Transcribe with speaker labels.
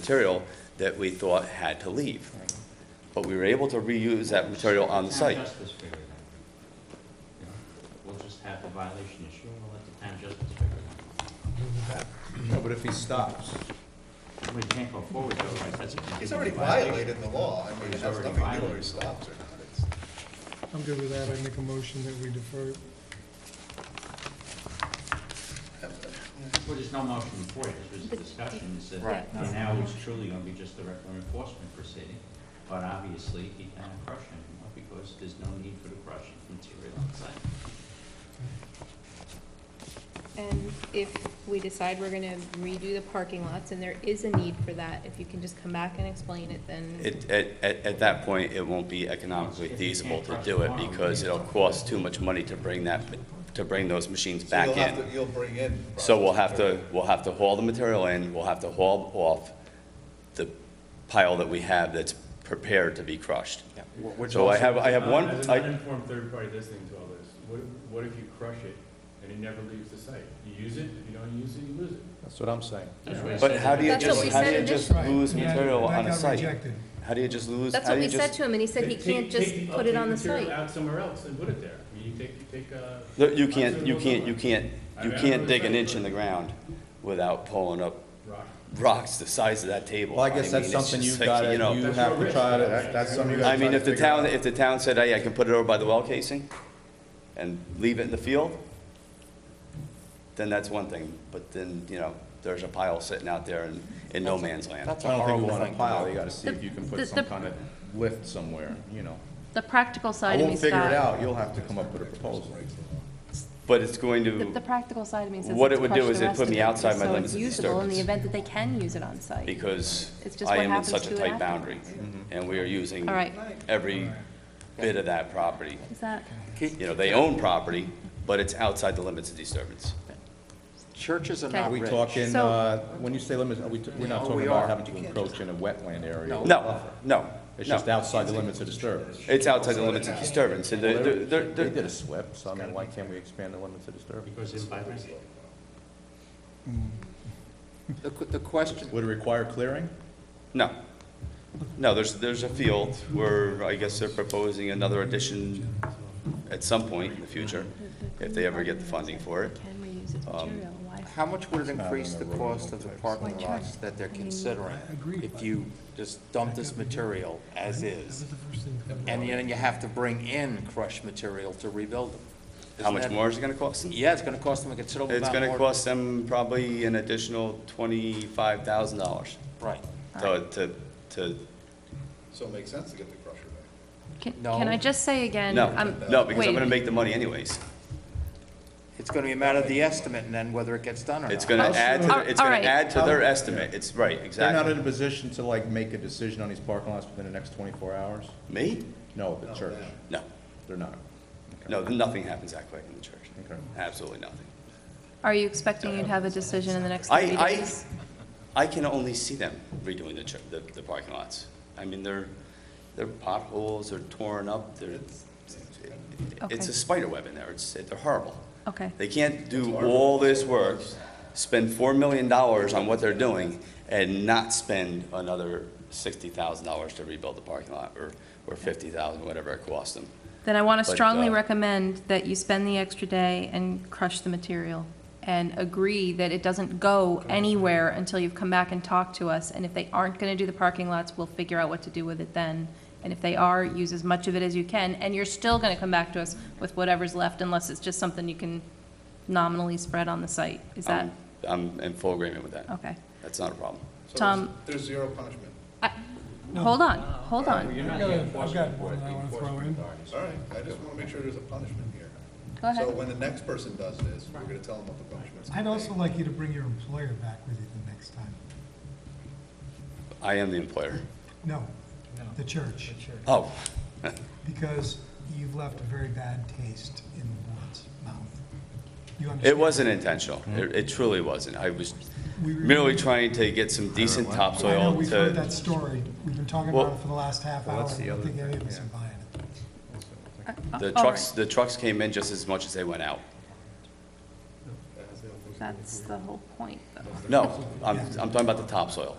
Speaker 1: material that we thought had to leave. But we were able to reuse that material on the site.
Speaker 2: Town justice figure it out. You know, We'll just have the violation issue, and we'll let the town justice figure it
Speaker 3: No, but if he stops,
Speaker 2: out. We can't go forward, otherwise that's a
Speaker 4: He's already
Speaker 2: continuing violation.
Speaker 4: violated the law, I mean, it
Speaker 2: He's
Speaker 4: has
Speaker 2: already
Speaker 4: nothing to do whether he
Speaker 2: violated.
Speaker 4: stops or not. It's-
Speaker 5: I'm good with that, I make a motion that we defer. it.
Speaker 2: Well, there's no motion before, it. this was a discussion, it's a,
Speaker 1: Right.
Speaker 2: now- now it's truly gonna be just a record enforcement proceeding, but obviously, he can't crush it anymore, because there's no need for the crushing material on site.
Speaker 6: And if we decide we're gonna redo the parking lots, and there is a need for that, if you can just come back and explain it, then,
Speaker 1: It, at, at, at that point, it won't be economically feasible to do it because it'll cost too much money to bring that, to bring those machines
Speaker 4: so
Speaker 1: back
Speaker 4: you'll have
Speaker 1: in.
Speaker 4: to- You'll bring in.
Speaker 1: So we'll have to,
Speaker 4: probably-
Speaker 1: we'll have to haul the material in, we'll have to haul off the pile that we have that's prepared to be crushed. So I have, I have one,
Speaker 7: As an
Speaker 1: I,
Speaker 7: uninformed third party listening to all this, what, what if you crush it and it never leaves the site? You use it, if you don't use it, you lose it.
Speaker 3: that's what I'm saying.
Speaker 2: That's what he
Speaker 1: but
Speaker 2: said.
Speaker 1: how do you
Speaker 6: That's what
Speaker 1: just,
Speaker 6: we
Speaker 1: how do
Speaker 6: said
Speaker 1: you just
Speaker 5: initially.
Speaker 1: lose
Speaker 5: Yeah,
Speaker 1: material
Speaker 5: that
Speaker 1: on a
Speaker 5: got
Speaker 1: site?
Speaker 5: rejected.
Speaker 1: How do you just lose?
Speaker 6: that's
Speaker 1: how
Speaker 6: what
Speaker 1: do
Speaker 6: we
Speaker 1: you
Speaker 6: said
Speaker 1: just-
Speaker 6: to him, and he said he
Speaker 7: Take-
Speaker 6: can't
Speaker 7: take-
Speaker 6: just
Speaker 7: take-
Speaker 6: put
Speaker 7: take
Speaker 6: it on the
Speaker 7: material
Speaker 6: site.
Speaker 7: Out somewhere else and put it there. I mean, you take, you take, uh.
Speaker 1: No, you can't,
Speaker 7: observable
Speaker 1: you can't, you
Speaker 7: somewhere.
Speaker 1: can't, you can't dig an inch in the ground without pulling up
Speaker 7: Rock.
Speaker 1: rocks the size of that table.
Speaker 3: Well, I guess
Speaker 1: mean,
Speaker 3: that's
Speaker 1: it's
Speaker 3: something
Speaker 1: just
Speaker 3: you've
Speaker 1: like,
Speaker 3: gotta,
Speaker 1: you know,
Speaker 3: you
Speaker 7: That's
Speaker 3: have
Speaker 7: your
Speaker 3: to
Speaker 7: risk.
Speaker 3: try to,
Speaker 7: That-
Speaker 3: that's something you
Speaker 1: I
Speaker 3: gotta try
Speaker 1: mean,
Speaker 3: to
Speaker 1: if the
Speaker 3: figure out.
Speaker 1: town, if the town said, hey, I can put it over by the well casing and leave it in the field, then that's one thing, but then, you know, there's a pile sitting out there in, in no man's land.
Speaker 3: I don't think we want a pile, you gotta see
Speaker 8: The-
Speaker 3: if you can
Speaker 8: the-
Speaker 3: put
Speaker 8: the-
Speaker 3: some kind of lift somewhere, you know.
Speaker 8: The practical
Speaker 3: I
Speaker 8: side of me,
Speaker 3: won't
Speaker 8: Scott.
Speaker 3: figure it out, you'll have to come up with a proposal.
Speaker 1: But it's going
Speaker 8: The, the
Speaker 1: to,
Speaker 8: practical side of me says.
Speaker 1: What
Speaker 8: let's
Speaker 1: it would do
Speaker 8: crush
Speaker 1: is
Speaker 8: the
Speaker 1: it'd
Speaker 8: rest
Speaker 1: put
Speaker 8: of
Speaker 1: me
Speaker 8: it,
Speaker 1: outside my
Speaker 8: so
Speaker 1: limits of
Speaker 8: It's usable in the
Speaker 1: disturbance.
Speaker 8: event that they can use it on site.
Speaker 1: because
Speaker 8: It's just
Speaker 1: I
Speaker 8: what
Speaker 1: am in
Speaker 8: happens
Speaker 1: such a
Speaker 8: to it
Speaker 1: tight boundary,
Speaker 8: afterwards.
Speaker 3: Mm-hmm.
Speaker 1: and we are using
Speaker 8: All right.
Speaker 1: every bit of that property.
Speaker 8: Is that,
Speaker 1: You know, they own property, but it's outside the limits of disturbance.
Speaker 9: Churches are
Speaker 8: Okay.
Speaker 3: Are
Speaker 9: not
Speaker 3: we
Speaker 9: rich.
Speaker 3: talking,
Speaker 8: So-
Speaker 3: uh, when you say limits, are we, t- we're not
Speaker 9: No,
Speaker 3: talking
Speaker 9: we
Speaker 3: about
Speaker 9: are.
Speaker 3: having to encroach in a wetland area?
Speaker 9: No.
Speaker 1: No, no,
Speaker 3: It's just
Speaker 1: no.
Speaker 3: outside the limits of disturbance.
Speaker 1: It's outside the limits of disturbance, and they're, they're- they're,
Speaker 3: They
Speaker 1: they're-
Speaker 3: did a SWIP, so I mean, why can't we expand the limits of disturbance?
Speaker 2: Because it's vibrant.
Speaker 9: The, qu- the question,
Speaker 3: Would it require clearing?
Speaker 1: No. No, there's, there's a field where I guess they're proposing another addition at some point in the future, if they ever get the funding for it.
Speaker 8: can we use its
Speaker 1: um,
Speaker 8: material? Why?
Speaker 9: how much would it
Speaker 3: not
Speaker 9: increase
Speaker 3: on
Speaker 9: the
Speaker 3: the road.
Speaker 9: cost of the parking
Speaker 8: Why
Speaker 9: lots
Speaker 8: try?
Speaker 9: that they're
Speaker 8: I mean,
Speaker 9: considering?
Speaker 5: agreed,
Speaker 9: If
Speaker 5: but-
Speaker 9: you just dump this material as is,
Speaker 5: That was the first thing.
Speaker 9: and then you have to bring in crushed material to rebuild them.
Speaker 1: How
Speaker 9: Isn't
Speaker 1: much
Speaker 9: that-
Speaker 1: more is it gonna cost them?
Speaker 9: Yeah, it's gonna cost them a considerable
Speaker 1: It's
Speaker 9: amount more.
Speaker 1: gonna cost them probably an additional twenty-five thousand dollars
Speaker 9: Right.
Speaker 1: to, to, to,
Speaker 4: So it makes sense to get the crusher back.
Speaker 8: Can,
Speaker 9: No.
Speaker 8: can I just say again?
Speaker 1: no,
Speaker 8: I'm-
Speaker 1: no, because
Speaker 8: wait a
Speaker 1: I'm gonna
Speaker 8: minute.
Speaker 1: make the money anyways.
Speaker 9: It's gonna be a matter of the estimate and then whether it gets done or not.
Speaker 1: It's gonna
Speaker 8: Oh,
Speaker 1: add, to
Speaker 8: sure.
Speaker 1: their- it's gonna
Speaker 8: Alright.
Speaker 1: add to their estimate. It's, right,
Speaker 3: They're not in
Speaker 1: exactly.
Speaker 3: a position to like make a decision on these parking lots within the next twenty-four hours?
Speaker 1: Me?
Speaker 3: No, the church,
Speaker 1: No,
Speaker 3: they're not.
Speaker 1: no, nothing happens that quick in the church.
Speaker 3: Okay.
Speaker 1: Absolutely nothing.
Speaker 8: Are you expecting you'd have a decision in the next
Speaker 1: I-
Speaker 8: thirty
Speaker 1: I-
Speaker 8: days?
Speaker 1: I can only see them redoing the, tr- the, the parking lots. I mean, they're, they're potholes, they're torn up, they're, it's
Speaker 8: Okay.
Speaker 1: a spider web in there, it's, they're horrible.
Speaker 8: Okay.
Speaker 1: They can't do all this work, spend four million dollars on what they're doing, and not spend another sixty thousand dollars to rebuild the parking lot, or, or fifty thousand, whatever it costs them.
Speaker 8: Then I want
Speaker 1: But,
Speaker 8: to strongly
Speaker 1: uh,
Speaker 8: recommend that you spend the extra day and crush the material and agree that it doesn't go anywhere until you've come back and talked to us. And if they aren't going to do the parking lots, we'll figure out what to do with it then. And if they are, use as much of it as you can. And you're still going to come back to us with whatever's left unless it's just something you can nominally spread on the site. Is that,
Speaker 1: I'm- I'm in full agreement with that.
Speaker 8: okay.
Speaker 1: That's not a problem.
Speaker 4: Um, So
Speaker 8: Tom-
Speaker 4: there's- There's zero punishment.
Speaker 8: I- Hold on, hold on.
Speaker 2: You're not
Speaker 5: I've
Speaker 2: the
Speaker 5: got- I've
Speaker 2: enforcement
Speaker 5: got
Speaker 2: for it,
Speaker 5: one I
Speaker 2: the
Speaker 5: wanna throw
Speaker 2: enforcement
Speaker 5: in.
Speaker 2: authorities.
Speaker 4: All right, I just want to make sure there's a punishment here.
Speaker 8: Go
Speaker 4: So
Speaker 8: ahead.
Speaker 4: when the next person does this, we're going to tell them what the punishment's going
Speaker 5: I'd
Speaker 4: to be.
Speaker 5: also like you to bring your employer back with you the next time.
Speaker 1: I am the employer.
Speaker 5: No, the church,
Speaker 1: Oh,
Speaker 5: because you've left a very bad taste in the board's mouth. You understand?
Speaker 1: it wasn't intentional. It, it truly wasn't. I was
Speaker 5: Mm-hmm. We remember-
Speaker 1: merely trying to get some decent
Speaker 5: I know,
Speaker 1: topsoil
Speaker 5: we've heard that
Speaker 1: to,
Speaker 5: story. We've been talking
Speaker 1: Well-
Speaker 5: about it for the last half hour.
Speaker 3: Well, that's
Speaker 5: and
Speaker 3: the
Speaker 5: I don't
Speaker 3: other
Speaker 5: think any of
Speaker 3: thing,
Speaker 5: us
Speaker 3: yeah.
Speaker 5: are buying it.
Speaker 1: the
Speaker 8: All
Speaker 1: trucks,
Speaker 8: Oh, right.
Speaker 1: the trucks came in just as much as they went out.
Speaker 8: That's the whole point, though.
Speaker 1: No, I'm, I'm talking about the topsoil.